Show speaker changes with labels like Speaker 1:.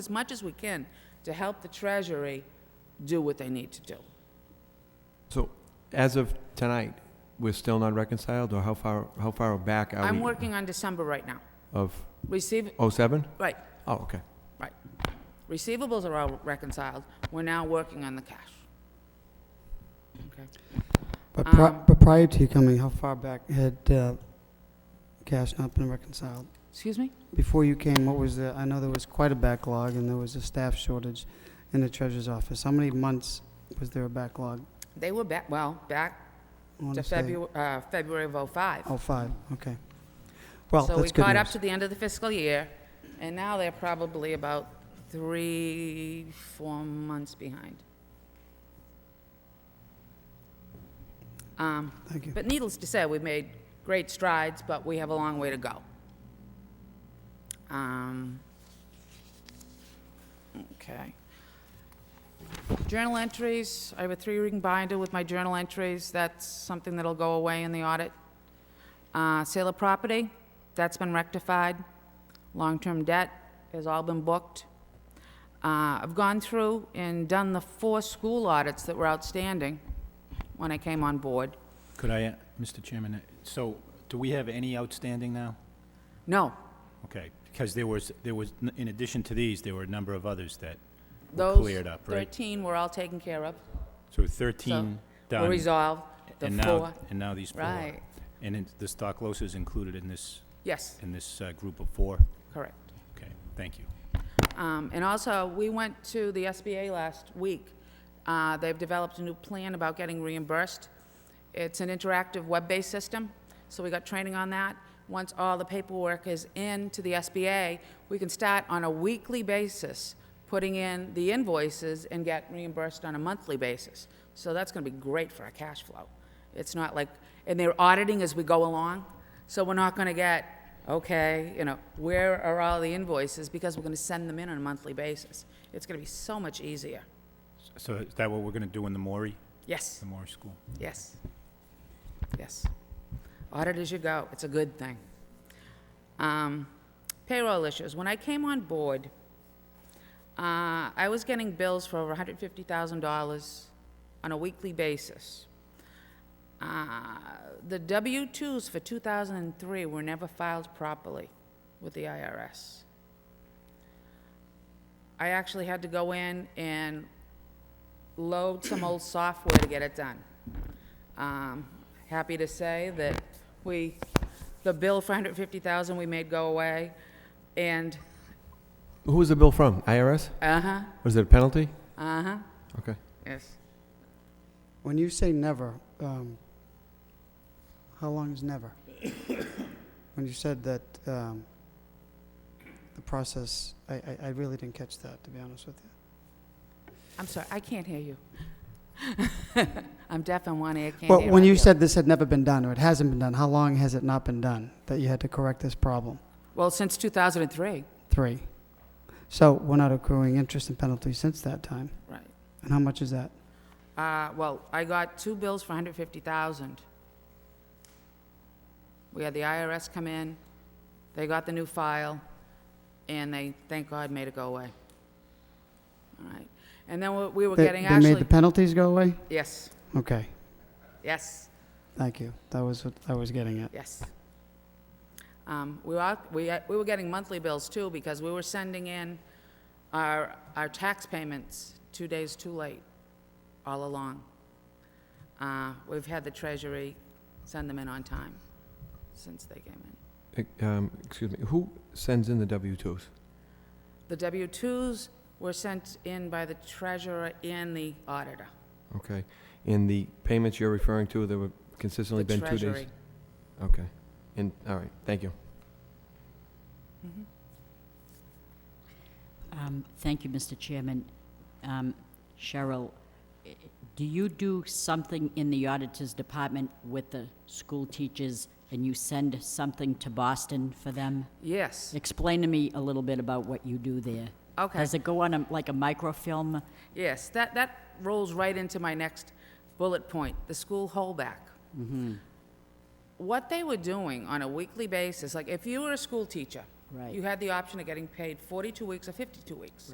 Speaker 1: as much as we can to help the Treasury do what they need to do.
Speaker 2: So as of tonight, we're still not reconciled, or how far, how far back are we?
Speaker 1: I'm working on December right now.
Speaker 2: Of
Speaker 1: Receive,
Speaker 2: '07?
Speaker 1: right,
Speaker 2: Oh, okay.
Speaker 1: right. Receivables are all reconciled. We're now working on the cash. Okay.
Speaker 3: But, pri-
Speaker 1: Um,
Speaker 3: but prior to you coming, how far back had uh, cash not been reconciled?
Speaker 1: Excuse me?
Speaker 3: Before you came, what was the? I know there was quite a backlog, and there was a staff shortage in the treasurer's office. How many months was there a backlog?
Speaker 1: They were back, well, back
Speaker 3: I wanna
Speaker 1: to
Speaker 3: say-
Speaker 1: February, uh, February of '05.
Speaker 3: Oh, five. Okay. Well,
Speaker 1: So we
Speaker 3: that's good
Speaker 1: caught up
Speaker 3: news.
Speaker 1: to the end of the fiscal year, and now they're probably about three, four months behind. Um,
Speaker 3: Thank you.
Speaker 1: But needless to say, we've made great strides, but we have a long way to go. Um, Okay. Journal entries, I have a three-ring binder with my journal entries. That's something that'll go away in the audit. Uh, Sale of property, that's been rectified. Long-term debt has all been booked. Uh, I've gone through and done the four school audits that were outstanding when I came on board.
Speaker 4: Could I, uh, Mr. Chairman, uh, so do we have any outstanding now?
Speaker 1: No,
Speaker 4: Okay, because there was, there was, n- in addition to these, there were a number of others that were
Speaker 1: those
Speaker 4: cleared up, right?
Speaker 1: 13 were all taken care of,
Speaker 4: So 13
Speaker 1: were
Speaker 4: done,
Speaker 1: resolved, the
Speaker 4: and now,
Speaker 1: four,
Speaker 4: and now these four.
Speaker 1: right.
Speaker 4: And it's- the Stocklosa is included in this,
Speaker 1: Yes,
Speaker 4: in this uh, group of four?
Speaker 1: correct.
Speaker 4: Okay, thank you.
Speaker 1: Um, And also, we went to the SBA last week. Uh, They've developed a new plan about getting reimbursed. It's an interactive web-based system, so we got training on that. Once all the paperwork is in to the SBA, we can start on a weekly basis putting in the invoices and get reimbursed on a monthly basis. So that's going to be great for our cash flow. It's not like, and they're auditing as we go along, so we're not going to get, okay, you know, where are all the invoices? Because we're going to send them in on a monthly basis. It's going to be so much easier.
Speaker 4: So is that what we're going to do in the Maury,
Speaker 1: Yes,
Speaker 4: the Maury School?
Speaker 1: yes, yes. Audit as you go, it's a good thing. Um, Payroll issues, when I came on board, uh, I was getting bills for over $150,000 on a weekly basis. Uh, The W-2s for 2003 were never filed properly with the IRS. I actually had to go in and load some old software to get it done. Um, Happy to say that we, the bill for 150,000 we made go away, and,
Speaker 2: Who was the bill from? IRS?
Speaker 1: uh-huh,
Speaker 2: Was it a penalty?
Speaker 1: uh-huh,
Speaker 2: Okay.
Speaker 1: yes.
Speaker 3: When you say never, um, how long is never? when you said that um, the process, I, I, I really didn't catch that, to be honest with you.
Speaker 1: I'm sorry, I can't hear you. I'm deaf in one ear, can't hear.
Speaker 3: Well, when
Speaker 1: my
Speaker 3: you
Speaker 1: other.
Speaker 3: said this had never been done, or it hasn't been done, how long has it not been done that you had to correct this problem?
Speaker 1: Well, since 2003,
Speaker 3: Three. So we're not accruing interest and penalties since that time.
Speaker 1: right.
Speaker 3: And how much is that?
Speaker 1: Uh, well, I got two bills for 150,000. We had the IRS come in, they got the new file, and they, thank God, made it go away. All right. And then what we were
Speaker 3: They-
Speaker 1: getting
Speaker 3: They made
Speaker 1: actually,
Speaker 3: the penalties go away?
Speaker 1: yes,
Speaker 3: Okay,
Speaker 1: yes,
Speaker 3: thank you. That was what I was getting at.
Speaker 1: yes. Um, We were, out- we, we were getting monthly bills too, because we were sending in our, our tax payments two days too late, all along. Uh, We've had the treasury send them in on time since they came in.
Speaker 2: E- um, Excuse me, who sends in the W-2s?
Speaker 1: The W-2s were sent in by the treasurer and the auditor.
Speaker 2: Okay. And the payments you're referring to, there were consistently
Speaker 1: The
Speaker 2: been two days?
Speaker 1: treasury.
Speaker 2: Okay. And, all right, thank you.
Speaker 5: Um, Thank you, Mr. Chairman. Um, Cheryl, i- do you do something in the Auditor's Department with the school teachers, and you send something to Boston for them?
Speaker 1: Yes,
Speaker 5: Explain to me a little bit about what you do there.
Speaker 1: Okay.
Speaker 5: Does it go on a- like a microfilm?
Speaker 1: yes, that, that rolls right into my next bullet point, the school holdback. What they were doing on a weekly basis, like if you were a school teacher,
Speaker 5: Right.
Speaker 1: you had the option of getting paid 42 weeks or 52 weeks.